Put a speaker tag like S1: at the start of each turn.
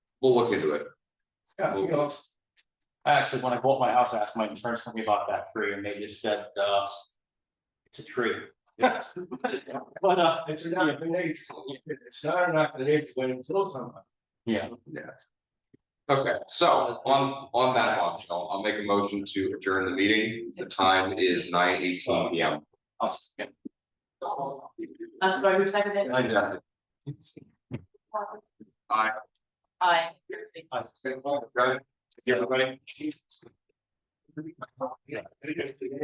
S1: We'll look into it.
S2: Yeah, you know, I Actually, when I bought my house, I asked my insurance company about that tree and they just said, uh. It's a tree. But, uh,
S3: It's not a nature, it's not an act of nature when it kills someone.
S2: yeah,
S1: Okay, so on, on that option, I'll, I'll make a motion to adjourn the meeting. The time is nine eighteen P M.
S2: I'll, s- yeah.
S4: I'm sorry, who seconded? it?
S1: Aye.
S4: Aye.
S2: I-
S1: Got it?
S2: Yeah, everybody.
S3: Yeah.